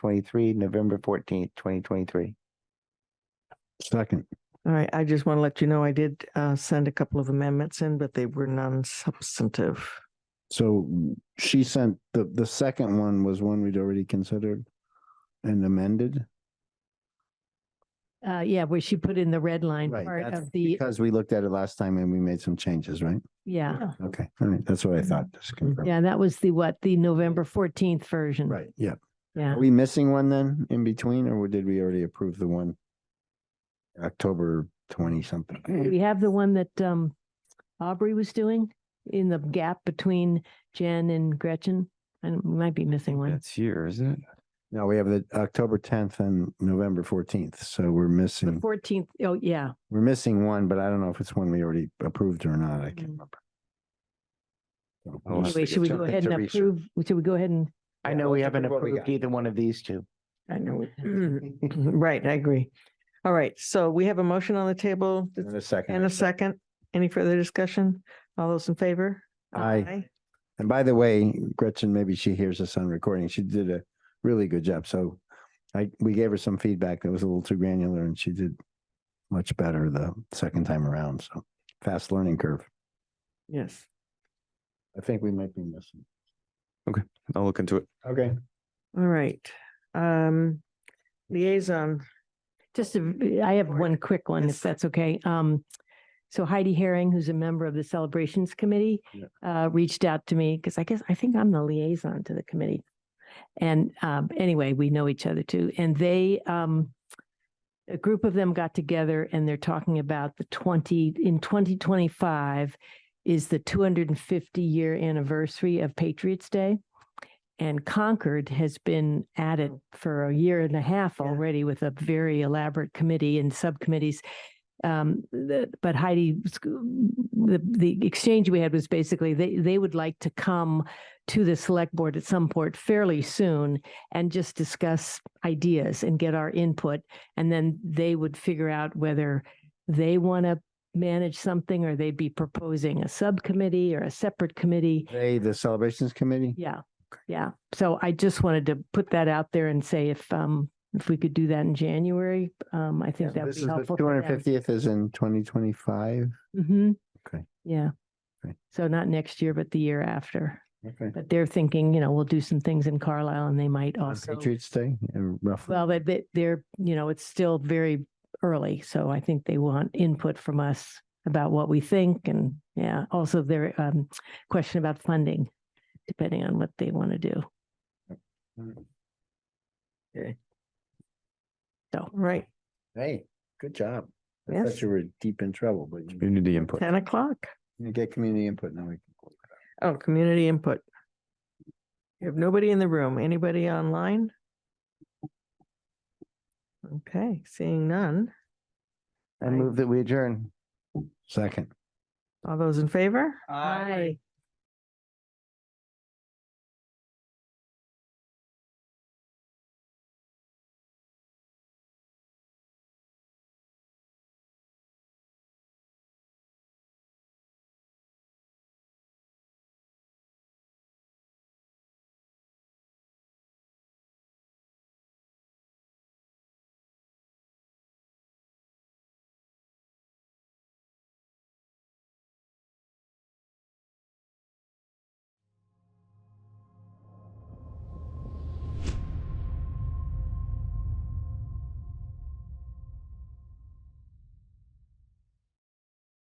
twenty-three, November fourteenth, twenty twenty-three. Second, All right, I just want to let you know, I did uh, send a couple of amendments in, but they were non-substantive. so she sent, the, the second one was one we'd already considered and amended. Uh, yeah, where she put in the red line Right, part that's of the, Because we looked at it last time and we made some changes, right? yeah. Okay, all right, that's what I thought, just confirm. Mm-hmm. Yeah, that was the what, the November fourteenth version. Right, yeah. Yeah. Are we missing one then in between, or did we already approve the one? October twenty something. We have the one that um Aubrey was doing in the gap between Jen and Gretchen. And we might be missing one. That's here, isn't it? No, we have the October tenth and November fourteenth, so we're The missing, fourteenth, oh, yeah. we're missing one, but I don't know if it's one we already approved or not, I Mm. can't remember. Well, So we'll it's Anyway, just should we take go it ahead to and research. approve, should we go ahead and, I Yeah, know let's we look haven't at what we approved got. either one of these two. I know. Mm-hmm. it. Mm, mm-hmm, Right, I agree. All right, so we have a motion on the table In a and a second. second. Any further discussion? All those in favor? Aye. And by the way, Gretchen, maybe she hears this on recording. She did a really good job. So I, we gave her some feedback that was a little too granular and she did much better the second time around. So fast learning curve. Yes. I think we might be missing. I'll look into it. Okay. All right. Um, liaison, just, a- I have one quick one, Yes. if that's okay. Um, so Heidi Herring, who's a member of the Celebrations Committee, Yeah. uh, reached out to me, because I guess, I think I'm the liaison to the committee. And, um, anyway, we know each other too, and they, um, a group of them got together and they're talking about the twenty, in twenty twenty-five is the two hundred and fifty year anniversary of Patriots Day. And Concord has been at it for a year and a half Yeah. already with a very elaborate committee and subcommittees. Um, the, but Heidi, was- the, the exchange we had was basically they, they would like to come to the select board at some point fairly soon and just discuss ideas and get our input. And then they would figure out whether they want to manage something or they'd be proposing a subcommittee or a separate committee. They, the celebrations committee? Yeah, yeah. So I just wanted to put that out there and say if, um, if we could do that in January, um, I think that would be helpful. Two hundred fiftieth is in twenty twenty-five. Mm-hmm. Okay. Yeah. Okay. So not next year, but the year after. Okay. But they're thinking, you know, we'll do some things in Carlisle and they might On also. Patriots Day, uh, roughly. Well, but they, they're, you know, it's still very early, so I think they want input from us about what we think and, yeah, also their, um, question about funding, depending on what they want to do. all right, Hey, good job. I Yes. thought you were deep in trouble, but you Community input. ten o'clock. you get community input now. we can- Oh, community input. We have nobody in the room. Anybody online? Okay, seeing none. I move that we adjourn. Second. All those in favor? Aye.